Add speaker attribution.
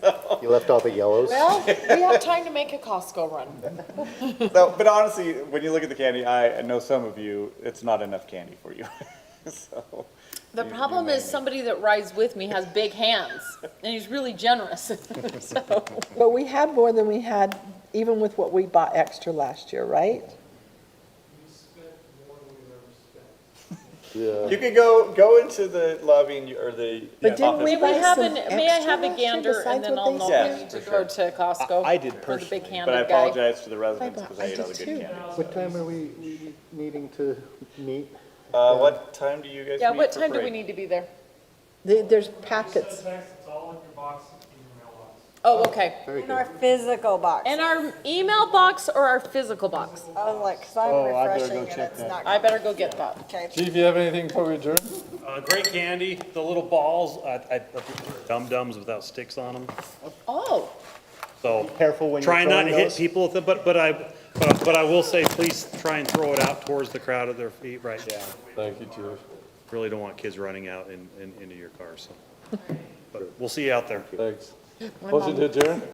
Speaker 1: You left all the yellows?
Speaker 2: Well, we have time to make a Costco run.
Speaker 3: No, but honestly, when you look at the candy, I I know some of you, it's not enough candy for you. so
Speaker 4: The
Speaker 3: you- you
Speaker 4: problem
Speaker 3: may
Speaker 4: is
Speaker 3: need-
Speaker 4: somebody that rides with me has big hands and he's really generous. So,
Speaker 5: But we had more than we had, even with what we bought extra last year, right?
Speaker 3: You could go go into the lobby and you, or the.
Speaker 5: But
Speaker 3: yeah,
Speaker 5: didn't
Speaker 3: office.
Speaker 5: we
Speaker 4: may we
Speaker 5: buy
Speaker 4: have
Speaker 5: some
Speaker 4: an, may I
Speaker 5: extra
Speaker 4: have a
Speaker 5: last year
Speaker 4: gander and
Speaker 5: besides
Speaker 4: then
Speaker 5: what
Speaker 4: I'll
Speaker 5: they
Speaker 4: know
Speaker 3: said?
Speaker 4: we need to go to Costco?
Speaker 6: I- I did
Speaker 4: For the big
Speaker 6: personally,
Speaker 3: But I
Speaker 4: handed guy.
Speaker 3: apologize to the residents
Speaker 5: I
Speaker 3: because I, ate all the
Speaker 5: did
Speaker 3: good
Speaker 5: too.
Speaker 3: candy.
Speaker 1: What time are we we needing to meet?
Speaker 3: Uh, what time do you guys?
Speaker 4: Yeah,
Speaker 3: meet
Speaker 4: what
Speaker 3: for
Speaker 4: time do we
Speaker 3: parade?
Speaker 4: need to be there?
Speaker 5: There- There's packets.
Speaker 7: It's all in your box in your mailbox.
Speaker 4: Oh, okay.
Speaker 1: Very
Speaker 8: In our
Speaker 1: good.
Speaker 8: physical box.
Speaker 4: And our email box or our physical box?
Speaker 8: I was like, 'cause
Speaker 1: Oh,
Speaker 8: I'm
Speaker 1: I better
Speaker 8: refreshing
Speaker 1: go
Speaker 8: and
Speaker 1: check
Speaker 8: it's
Speaker 1: that.
Speaker 8: not.
Speaker 4: I better go get that.
Speaker 8: Okay.
Speaker 6: Chief, you have anything before we adjourn?
Speaker 7: Uh, great candy, the little balls, I, I, dum dums without sticks on them,
Speaker 4: Oh,
Speaker 7: so.
Speaker 1: Careful when you're
Speaker 7: Try not to
Speaker 1: throwing
Speaker 7: hit
Speaker 1: those.
Speaker 7: people with it, but, but I, but but I will say, please try and throw it out towards the crowd at their feet, right? Yeah.
Speaker 6: Thank you, Chief.
Speaker 7: Really don't want kids running out and, and into your car, so. But we'll see you out there.
Speaker 6: Thanks. Motion to adjourn?